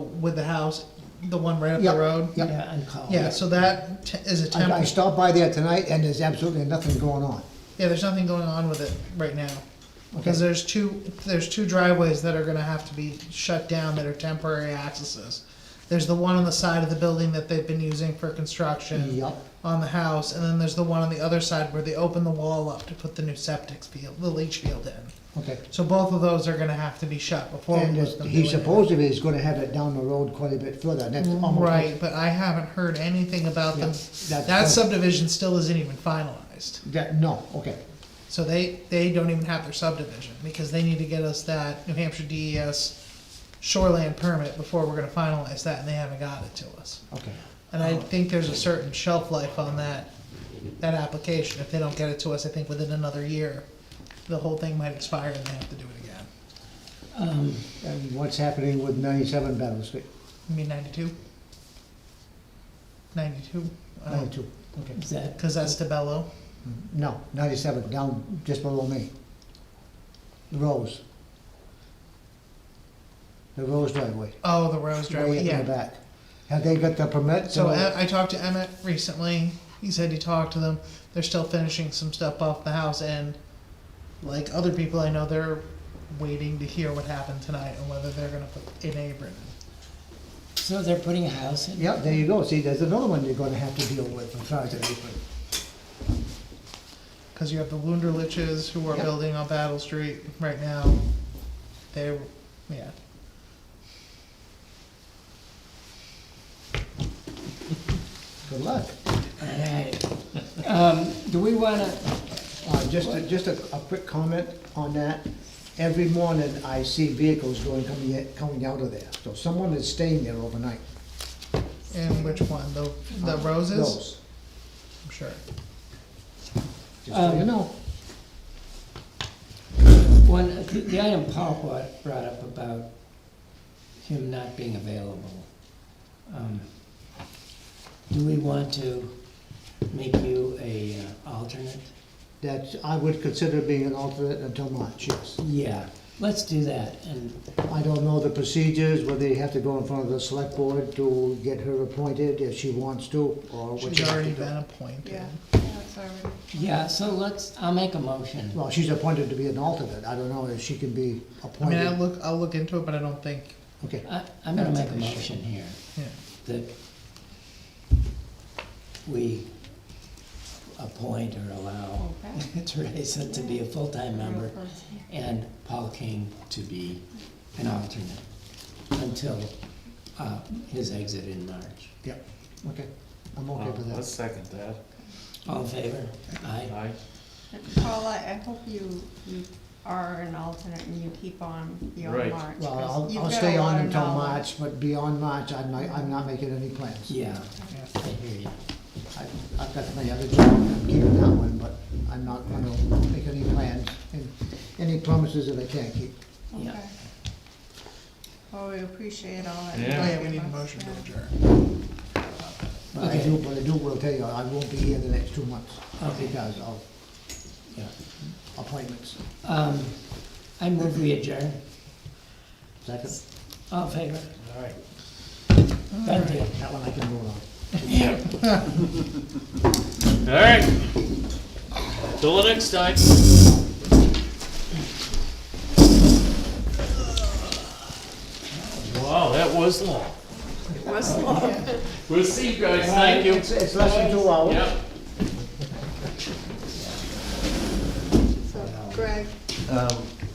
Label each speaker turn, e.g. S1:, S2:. S1: with the house, the one right up
S2: Yep,
S1: the road?
S2: yep. Oh,
S3: Yeah, and call.
S1: Yeah, so that te- is a
S2: I I
S1: temp,
S2: stopped by there tonight and there's absolutely nothing going on.
S1: yeah, there's nothing going on with it right now. Because
S2: Okay.
S1: there's two, there's two driveways that are gonna have to be shut down that are temporary accesses. There's the one on the side of the building that they've been using for construction.
S2: Yep.
S1: On the house, and then there's the one on the other side where they open the wall up to put the new septic field, the leach field in.
S2: Okay.
S1: So both of those are gonna have to be shut before. we
S2: And
S1: let
S2: it's-
S1: them do
S2: he
S1: it.
S2: supposedly is gonna have it down the road quite a bit further, and that's almost.
S1: Mm, Right, but I haven't heard anything about
S2: Yeah,
S1: them.
S2: that's-
S1: That subdivision still isn't even finalized.
S2: That, no, okay,
S1: So they, they don't even have their subdivision because they need to get us that New Hampshire DES shoreland permit before we're gonna finalize that and they haven't got it to us.
S2: okay.
S1: And I think there's a certain shelf life on that, that application. If they don't get it to us, I think within another year, the whole thing might expire and they have to do it again.
S3: Um,
S2: And what's happening with ninety-seven Battle Street,
S1: You mean ninety-two? Ninety-two? Uh,
S2: ninety-two, okay.
S3: is that,
S1: Cause that's DeBello.
S2: Mm, No, ninety-seven, down just below me. The Rose. The Rose driveway.
S1: Oh, the Rose
S2: way
S1: driveway,
S2: up in the
S1: yeah.
S2: back. Have they got the permit?
S1: So
S2: to-
S1: I I talked to Emmett recently. He said he talked to them. They're still finishing some stuff off the house and like other people I know, they're waiting to hear what happened tonight and whether they're gonna put an apron.
S3: so they're putting a house in?
S2: Yeah, there you go, see, there's another one you're gonna have to deal with as far as that apron.
S1: Cause you have the Wunderliches who are
S2: Yeah.
S1: building on Battle Street right now. They, yeah.
S2: Good luck.
S3: Alright. Um, do we wanna,
S2: Uh, just, a- just a, a quick comment on that. Every morning I see vehicles going, coming, in- coming out of there, so someone is staying there overnight.
S1: And which one? The, the
S2: Um,
S1: roses?
S2: Those,
S1: I'm sure.
S2: just so you
S3: Um,
S2: know.
S3: one, the, the item Paul brought, brought up about him not being available. um, Do we want to make you a uh, alternate?
S2: That, I would consider being an alternate until March, yes.
S3: Yeah, let's do that, and,
S2: I don't know the procedures, whether you have to go in front of the select board to get her appointed if she wants to, or what you
S1: She's
S2: have to
S1: already
S2: do.
S1: been appointed.
S4: Yeah, yeah, it's already,
S3: yeah, so let's, I'll make a motion.
S2: Well, she's appointed to be an alternate, I don't know if she can be
S1: I mean, I'll
S2: appointed.
S1: look, I'll look into it, but I don't think,
S2: Okay,
S3: I, I'm gonna
S1: That's
S3: make
S1: an
S3: a
S1: issue.
S3: motion here.
S1: yeah.
S3: that we appoint or allow
S4: Okay.
S3: Teresa to be a full-time member and Paul King to be an alternate until, uh, his exit in March.
S2: yeah, okay, I'm okay
S5: Well,
S2: with
S5: Oh, Let's
S2: that.
S5: second that.
S3: All in favor? Aye.
S5: Aye.
S4: Paula, I hope you, you are an alternate and you keep on beyond
S5: Right.
S4: March. 'cause
S2: Well, I'll,
S4: you've
S2: I'll
S4: got a
S2: stay
S4: lot
S2: on
S4: of
S2: until
S4: knowledge.
S2: March, but beyond March, I'm not, I'm not making any plans.
S3: Yeah,
S1: yeah.
S3: I hear you.
S2: I- I've got my other job, I'm keeping that one, but I'm not gonna make any plans, and any promises that I can't keep.
S3: Yeah.
S4: Okay. Well, we appreciate all that. you
S1: Oh,
S5: Yeah.
S1: yeah,
S4: give
S1: we need a
S4: us,
S1: motion to
S4: yeah.
S1: adjourn.
S2: But I
S3: Okay.
S2: do, but I do, will tell you, I won't be here the next two months
S3: Okay.
S2: because of
S3: Yeah.
S2: appointments.
S3: Um, I move we adjourn.
S2: Second,
S3: All in favor?
S2: all right,
S3: Done deal.
S2: that one I can vote on.
S5: All right. Till the next time. Wow, that was long. We'll see you guys. Thank you.
S2: It's, it's less than two hours.
S5: Yep.
S4: So Greg,
S6: Um,